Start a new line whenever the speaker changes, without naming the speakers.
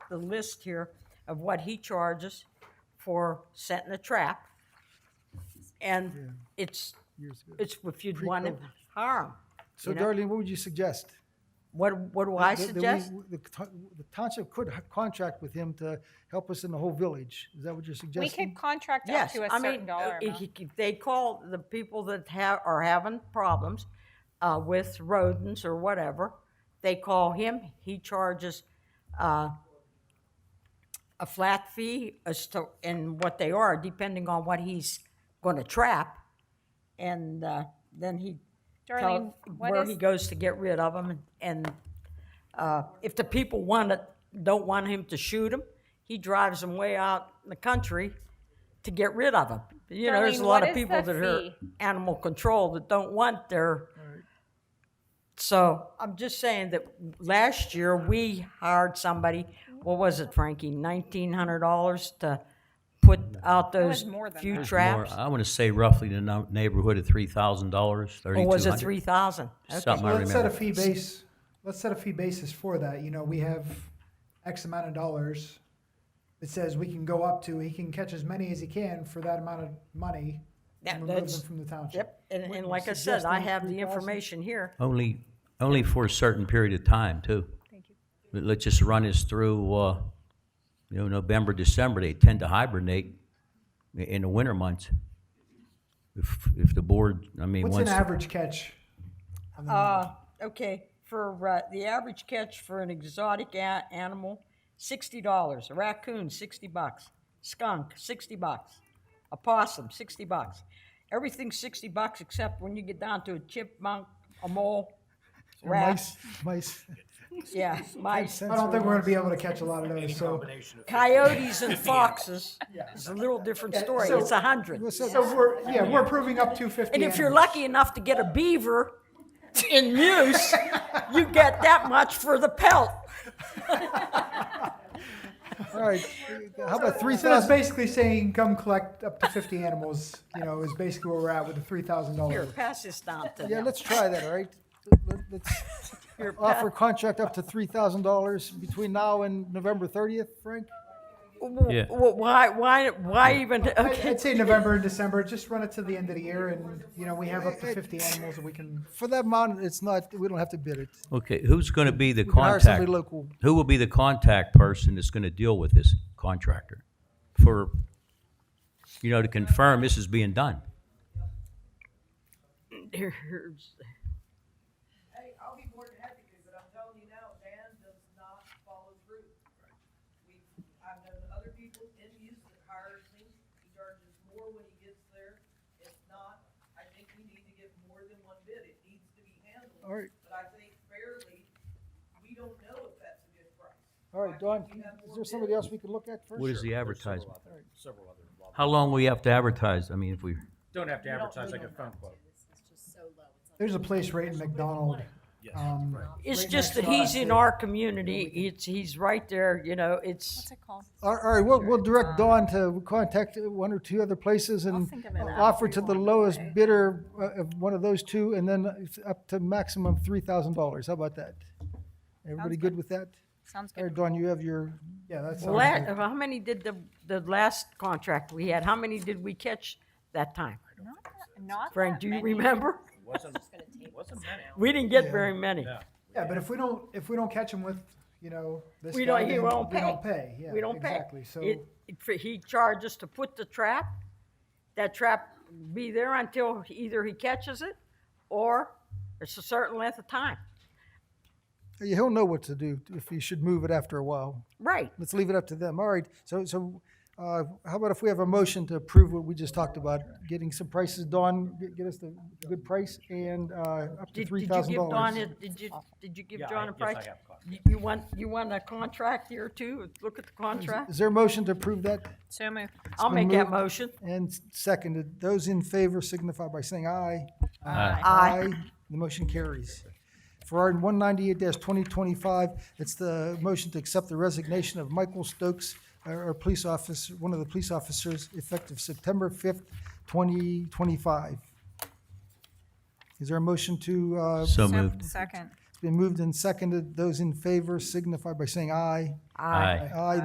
the list here of what he charges for setting a trap. And it's,
years ago.
it's if you'd want to harm.
So Darlene, what would you suggest?
What, what do I
That- that we-
suggest?
The to- the township could h- contract with him to help us in the whole village. Is that what you're
We
suggesting?
could contract up
Yes,
to a
I
certain
mean,
dollar
if-
amount.
if they call the people that have, are having problems uh, with rodents or whatever, they call him, he charges uh, a flat fee as to, and what they are, depending on what he's gonna trap. And uh, then he
Darlene,
tells
what
where he
is-
goes to get rid of them. And uh, if the people want it, don't want him to shoot them, he drives them way out in the country to get rid of them. You know, there's a
Darlene,
lot
what
of
is
people
the
that are
fee?
animal control that don't want their. So I'm just saying that last year we hired somebody, what was it, Frankie, nineteen hundred dollars to put out
was
those
more than
few
that.
More,
traps?
I want to say roughly in the no- neighborhood of three thousand dollars,
Or
thirty-two
was it
uh, hundred.
three thousand?
Something I
Let's set a
remember.
fee base, let's set a fee basis for that, you know, we have X amount of dollars. It says we can go up to, he can catch as many as he can for that amount of money.
That-
and remove
that's-
them From the township.
Yep, and, and like I said, I have the information here.
Only, only for a certain period of time, too. Thank you. Let's just run this through, uh, you know, November, December, they tend to hibernate i- in the winter months. If, if the board, I mean,
What's an
once,
average catch?
Uh, okay, for, uh, the average catch for an exotic a- animal, sixty dollars. A raccoon, sixty bucks. Skunk, sixty bucks. A possum, sixty bucks. Everything's sixty bucks except when you get down to a chipmunk, a mole,
Or
rat,
Mice, mice.
yeah, mice.
I don't think we're gonna be able to catch a lot of those, so.
Coyotes and foxes is a little different story.
so-
It's a hundred.
So we're, yeah, we're approving up to fifty.
And if you're
animals.
lucky enough to get a beaver in use, you get that much for the pelt.
All right, how about three
So that's
thousand?
basically saying come collect up to fifty animals, you know, is basically where we're at with the three thousand
Here,
dollars.
pass this down to
Yeah,
them.
let's try that, all right? Let- Let's
Here, pa-
offer contract up to three thousand dollars between now and November thirtieth, Frank?
w-
Yeah.
w- Why, why, why even, okay,
I'd say November and December, just run it to the end of the year and, you know, we have up to fifty animals that we can.
For that amount, it's not, we don't have to bid it.
okay, who's going to be the
can hire somebody
contact?
local.
Who will be the contact person that's going to deal with this contractor? For, you know, to confirm this is being done?
here's,
Hey, I'll be more than happy to, but I'm telling you now, Dan does not follow through. We, I've known other people in use that hires me, he charges more when he gets there. If not, I think we need to get more than one bid, it needs to be handled.
All right.
But I think fairly, we don't know if that's a good price.
All right, Don, is there somebody else we could look at first?
What is the advertisement?
Several other involved.
How long will you have to advertise? I mean, if we,
Don't have to advertise like a phone quote.
There's a place right in McDonald.
Yes.
Um,
it's
right
just that
next to
he's
us.
in our community, it's, he's right there, you know, it's,
What's it called?
All all right, we'll, we'll direct Dawn to contact one or two other places and
think of an
offer to the lowest bidder uh, of one of those two, and then it's up to maximum three thousand dollars. How about that? Everybody good with that?
Sounds
All
good.
right, Dawn, you have your,
Yeah, that's.
la- how many did the, the last contract we had, how many did we catch that time?
Not that- Not
Frank,
that
do you
many.
remember?
Wasn't, wasn't many.
We didn't get very many.
No.
Yeah, but if we don't, if we don't catch them with, you know, this
We don't-
guy,
he
then
won't
we
pay.
don't pay. Yeah,
We don't pay.
exactly. So
It- it- for- He charges to put the trap, that trap be there until either he catches it or it's a certain length of time.
he'll know what to do if he should move it after a while.
Right.
Let's leave it up to them. All right, so, so, uh, how about if we have a motion to approve what we just talked about? Getting some prices, Dawn, get- get us the good price and, uh, up to
Did
three
did you
thousand
give
dollars.
Don, a- did you, did you give
Yeah, I-
John a
yes, I
price?
have a contract.
You- You want, you want a contract here too? Look at the contract?
Is there a motion to approve that?
So moved.
I'll
been
make that
moved.
motion.
And seconded, those in favor signify by saying aye.
Aye.
Aye.
The motion carries. For our one ninety-eight twenty twenty-five, it's the motion to accept the resignation of Michael Stokes, our, our police officer, one of the police officers, effective September fifth, twenty twenty-five. Is there a motion to, uh,
so
So-
moved.
Second.
It's been moved and seconded. Those in favor signify by saying aye.
Aye.
Aye.